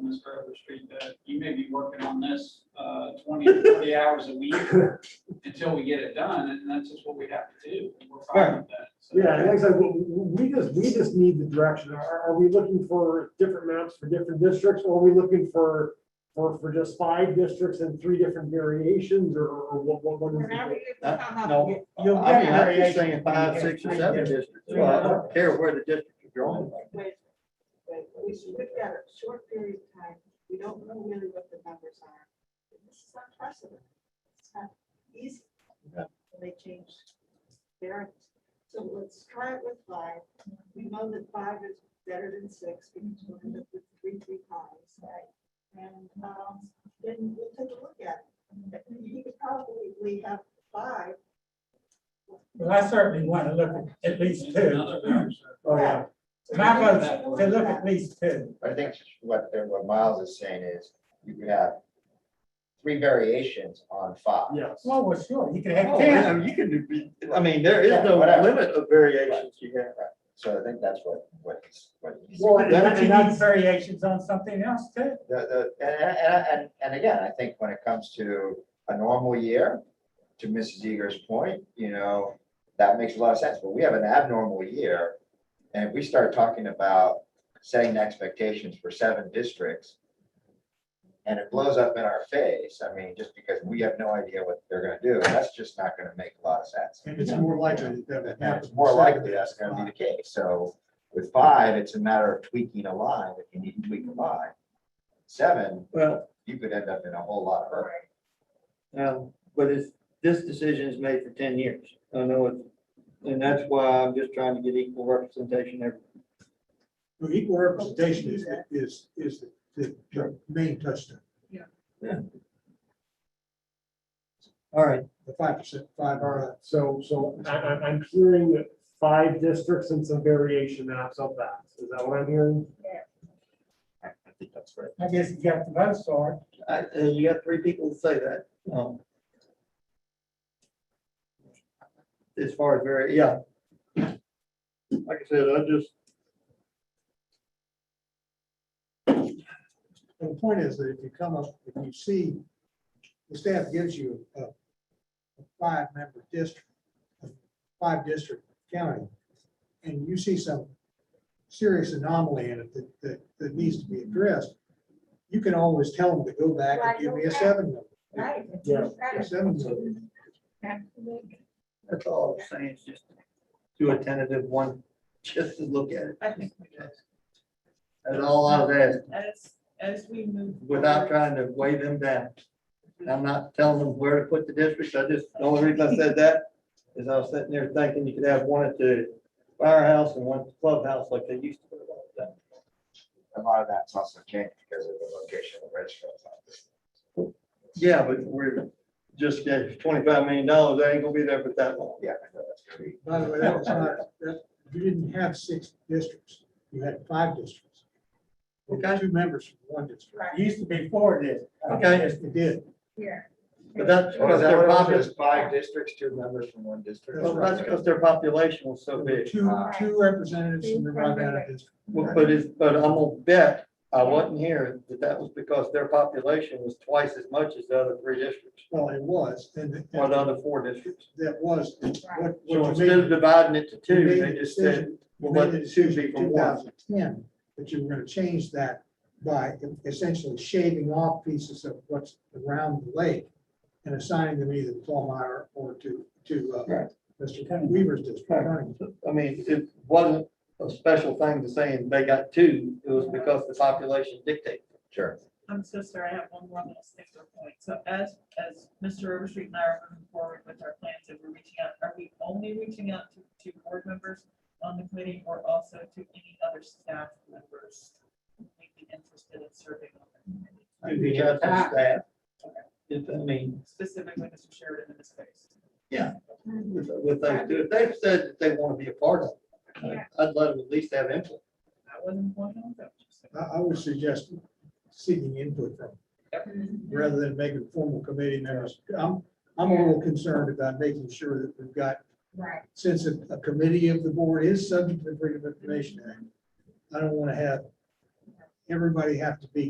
Mr. Overstreet, that you may be working on this uh, 20, to 30 hours a week until we get it done, and that's just what we have to do. and We're fine with that. So, Yeah, and like I said, we, we just, we just need the direction. Are, are we looking for different maps for different districts? Or are we looking for, for, for just five districts and three different variations or, or what, what, what is Whenever it? you come up, no. you- I'm you'll get not it. just saying five, six, or seven districts, so I don't care where the districts are drawn. Wait, wait, We should, we've got a short period of time, we don't know really what the numbers are. This is unprecedented. It's not easy. Yeah. And They change their, so let's try it with five. We know that five is better than six because we're gonna put three, three times, right? And, um, then we'll take a look at it. You could probably have five. Well, I certainly want to look at at least two. another conversation. Oh, yeah. My vote's to look at least two. I think what, the- what Miles is saying is, you could have three variations on five. Yes. Well, well, sure, you can have Oh, ten. Can, Oh, you can do, I mean, there is no Yeah, whatever. limit of variations you have. So I think that's what, what he's, what he's. Well, and But that- you and need that's, variations on something else too. The, the, and, and, and, and again, I think when it comes to a normal year, to Mrs. Eager's point, you know, that makes a lot of sense, but we have an abnormal year. And if we start talking about setting expectations for seven districts. And it blows up in our face, I mean, just because we have no idea what they're gonna do, that's just not gonna make a lot of sense. And it's more likely that it And happens. it's more likely that's gonna be the case, so with five, it's a matter of tweaking a line, if you need to tweak a line. Seven, Well, you could end up in a whole lot of hurt. um, but it's, this decision is made for ten years. I know it, and that's why I'm just trying to get equal representation everywhere. Well, Equal representation is, is, is the, the main touchstone, All right, the five percent, five, uh, so, so I, I, I'm hearing five districts and some variation maps of that. Is that what I'm hearing? I think that's right. I guess you got the vote for it. I, uh, you got three people to say that. um, As far as very, yeah. Like I said, I just, the point is that if you come up, if you see, the staff gives you a, a five-member district, a five-district county, and you see some serious anomaly in it that, that, that needs to be addressed, you can always tell them to go back and give me a seven number, Right. Yeah. a seven number. that's all I'm saying, is just do a tentative one, just to look at it. I think we do. That's all I was asking, As, as we move. forward, without trying to weigh them down. And I'm not telling them where to put the districts, I just, the only reason I said that is I was sitting there thinking you could have one at the firehouse and one at the clubhouse like they used to. A lot of that's also changed because of the location of the registrar's office. Yeah, but we're just, yeah, twenty-five million dollars, they ain't gonna be there for that long. Yeah, I know that's gonna be. By the way, that was not, that, you didn't have six districts, you had five districts. Okay. Two members from one district. It used to be four days. Okay. Yes, it did. But that's Well, because is that their what it population, was? Five districts, two members from one district. That's that's because their population was so There were big. Two, two representatives from the Rivanna district. Well, But it's, but I'm gonna bet, I wasn't here, that that was because their population was twice as much as the other three districts, Well, it was, and it- or the other four districts. that was what, So what instead of you made. dividing it to you two, made they the just said, decision- well, you let made the the two decision be in for one. 2010 That you were gonna change that by essentially shaving off pieces of what's around the lake and assigning them either to Paul Meyer or to, to, uh, Right. Mr. Weaver's district. Right. I mean, it wasn't a special thing to saying they got two, it was because the population dictated. Sure. I'm so sorry, I have one more little sticker point. So as, as Mr. Overstreet and I are moving forward with our plans, if we're reaching out, are we only reaching out to, to board members on the committee or also to any other staff members who may be interested in serving on the committee? Do the other staff, if- I mean, Specifically, Mr. Sheridan in this case. with, with those two, if they've said that they want to be a part of it, I'd let them at least have input. That wasn't one of them. I, I would suggest seeking input from, rather than making formal committee members. I'm, I'm a little concerned about making sure that we've got Right. since a, a committee of the board is subject to the Freedom of Information Act, I don't want to have everybody have to be